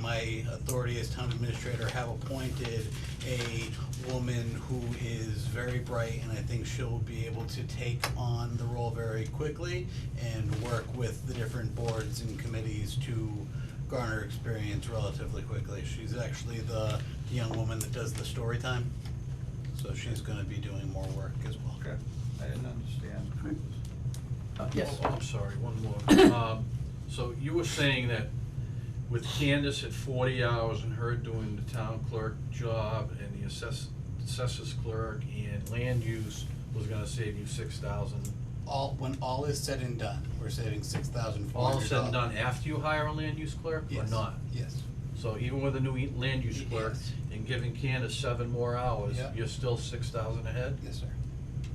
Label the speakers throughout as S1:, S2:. S1: my authority as town administrator, have appointed a woman who is very bright, and I think she'll be able to take on the role very quickly and work with the different boards and committees to garner experience relatively quickly. She's actually the young woman that does the story time, so she's gonna be doing more work as well.
S2: Okay, I didn't understand.
S3: Uh, Yes.
S4: Oh, I'm sorry, one more. Um, So you were saying that with Candace at forty hours and her doing the town clerk job and the assess, assessors clerk and land use was gonna save you six thousand.
S1: All, when all is said and done, we're saving six thousand four
S4: All
S1: hundred dollars.
S4: said and done after you hire a land use clerk or
S1: Yes,
S4: not?
S1: Yes,
S4: So even with a new e- land use
S1: Yes.
S4: clerk and giving Candace seven more hours,
S1: Yeah.
S4: you're still six thousand ahead?
S1: yes, sir.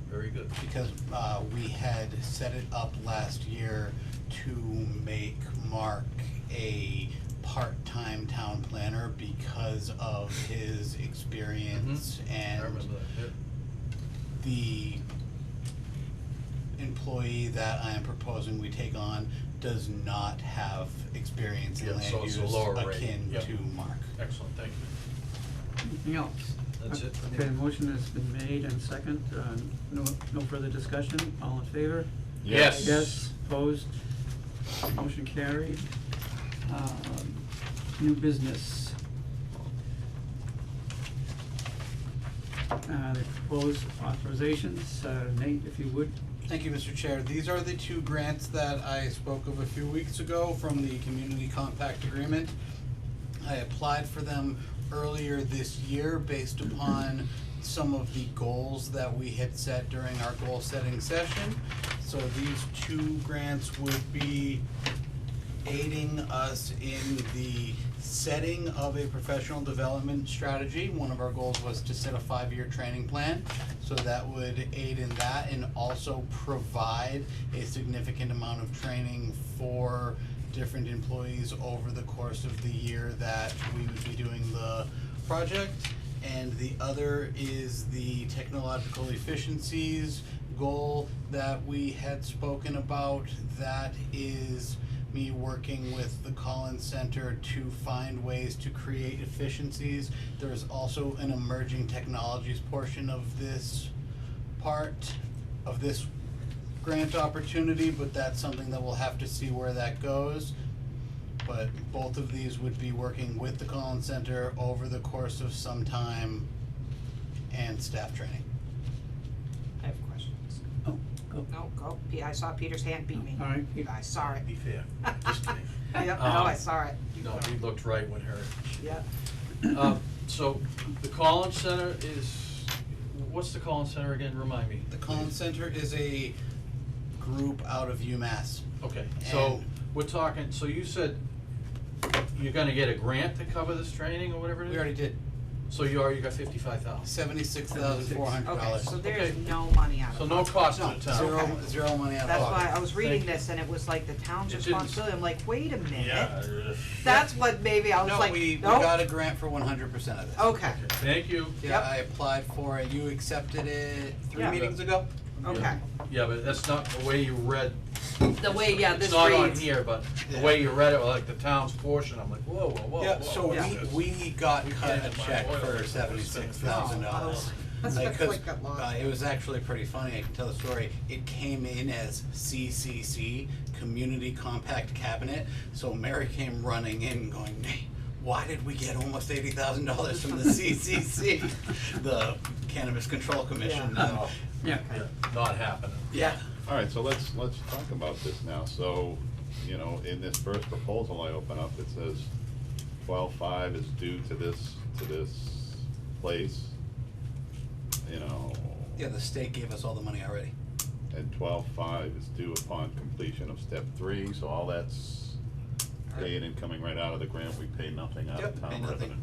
S4: Very good.
S1: Because, uh, we had set it up last year to make Mark a part-time town planner because of his experience
S4: Mm-hmm. I
S1: and
S4: remember that.
S1: the employee that I am proposing we take on does not have experience in
S4: Yeah,
S1: land
S4: so it's
S1: use
S4: a lower rate.
S1: akin
S4: Yeah.
S1: to Mark.
S4: Yeah. Excellent, thank you.
S3: Anything else?
S4: That's it for me.
S3: Okay, motion has been made and second, uh, no, no further discussion, all in favor?
S4: Yes.
S3: Yes, opposed, motion carried. Um, New business. Uh, the proposed authorizations, uh, Nate, if you would,
S1: Thank you, Mr. Chair. These are the two grants that I spoke of a few weeks ago from the Community Compact Agreement. I applied for them earlier this year based upon some of the goals that we had set during our goal-setting session. So these two grants would be aiding us in the setting of a professional development strategy. One of our goals was to set a five-year training plan, so that would aid in that and also provide a significant amount of training for different employees over the course of the year that we would be doing the project and the other is the technological efficiencies goal that we had spoken about. That is me working with the Collins Center to find ways to create efficiencies. There is also an emerging technologies portion of this part of this grant opportunity, but that's something that we'll have to see where that goes. But both of these would be working with the Collins Center over the course of some time and staff training.
S5: I have questions.
S3: oh, go.
S5: No, go, Pe- I saw Peter's hand beat me.
S3: All right, Peter.
S5: I saw it.
S4: Be fair, just kidding.
S5: Yep, no, I
S4: Um,
S5: saw it. You
S4: No,
S5: go.
S4: we looked right when her.
S5: Yep.
S4: Uh, So the Collins Center is, what's the Collins Center again? Remind me.
S1: The Collins Center is a group out of UMass.
S4: Okay, so
S1: And-
S4: we're talking, so you said you're gonna get a grant to cover this training or whatever it is?
S1: We already did
S4: So you already got fifty-five thousand?
S1: seventy-six thousand four hundred
S5: Okay,
S1: dollars.
S5: so there's
S4: Okay.
S5: no money out of it.
S4: So no cost to the
S1: No,
S4: town?
S1: zero,
S5: Okay.
S1: zero money out of
S5: That's why I
S1: pocket.
S5: was reading
S4: Thank you.
S5: this and it was like the town's
S4: It didn't-
S5: responsibility. I'm like, wait a minute.
S4: uh,
S5: That's what maybe I was
S1: No,
S5: like,
S1: we, we
S5: nope.
S1: got a grant for one hundred percent of this.
S5: Okay,
S4: Thank you.
S1: Yeah,
S5: Yep.
S1: I applied for it, you accepted it three
S5: Yeah.
S1: meetings ago?
S5: okay.
S4: Yeah, but that's not the way you read.
S5: The way, yeah, this
S4: It's not on
S5: reads.
S4: here, but the
S1: Yeah.
S4: way you read it, like the town's portion, I'm like, whoa, whoa, whoa,
S1: Yeah,
S4: whoa,
S1: so
S4: what's
S1: we,
S4: this?
S1: we got
S4: We
S1: cut a
S4: can't buy
S1: check
S4: oil.
S1: for seventy-six thousand dollars.
S5: Oh, That's
S1: Like,
S5: what
S1: 'cause,
S5: quick got lost.
S1: uh, it was actually pretty funny, I can tell the story, it came in as CCC, Community Compact Cabinet, so Mary came running in going, Nate, why did we get almost eighty thousand dollars from the CCC? The Cannabis Control Commission,
S5: Yeah.
S1: um,
S3: Yeah,
S4: Yeah, Not happening.
S1: yeah,
S2: All right, so let's, let's talk about this now. So, you know, in this first proposal I open up, it says twelve-five is due to this, to this place, you know,
S1: yeah, the state gave us all the money already.
S2: and twelve-five is due upon completion of step three, so all that's paid and coming right out of the grant. We pay nothing out
S1: Yep,
S2: of
S1: pay
S2: town
S1: nothing.
S2: revenue.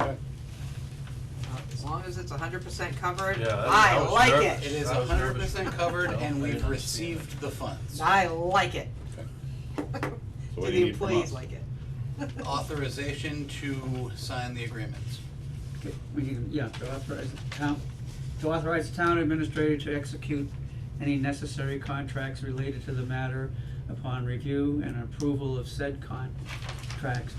S2: Okay.
S5: As long as it's hundred percent covered,
S4: Yeah, that-
S5: I
S4: that was
S5: like
S4: nervous.
S1: It
S5: it.
S1: is
S4: I was
S1: hundred
S4: nervous.
S1: percent covered
S4: No,
S1: and
S4: I
S1: we've
S4: didn't
S1: received the funds.
S5: I like it.
S2: So what
S5: Do
S2: do
S5: the
S2: you need from
S5: employees
S2: us?
S5: like it?
S1: Authorization to sign the agreements.
S3: okay, we can, yeah, to authorize the town, to authorize the town administrator to execute any necessary contracts related to the matter upon review and approval of said contracts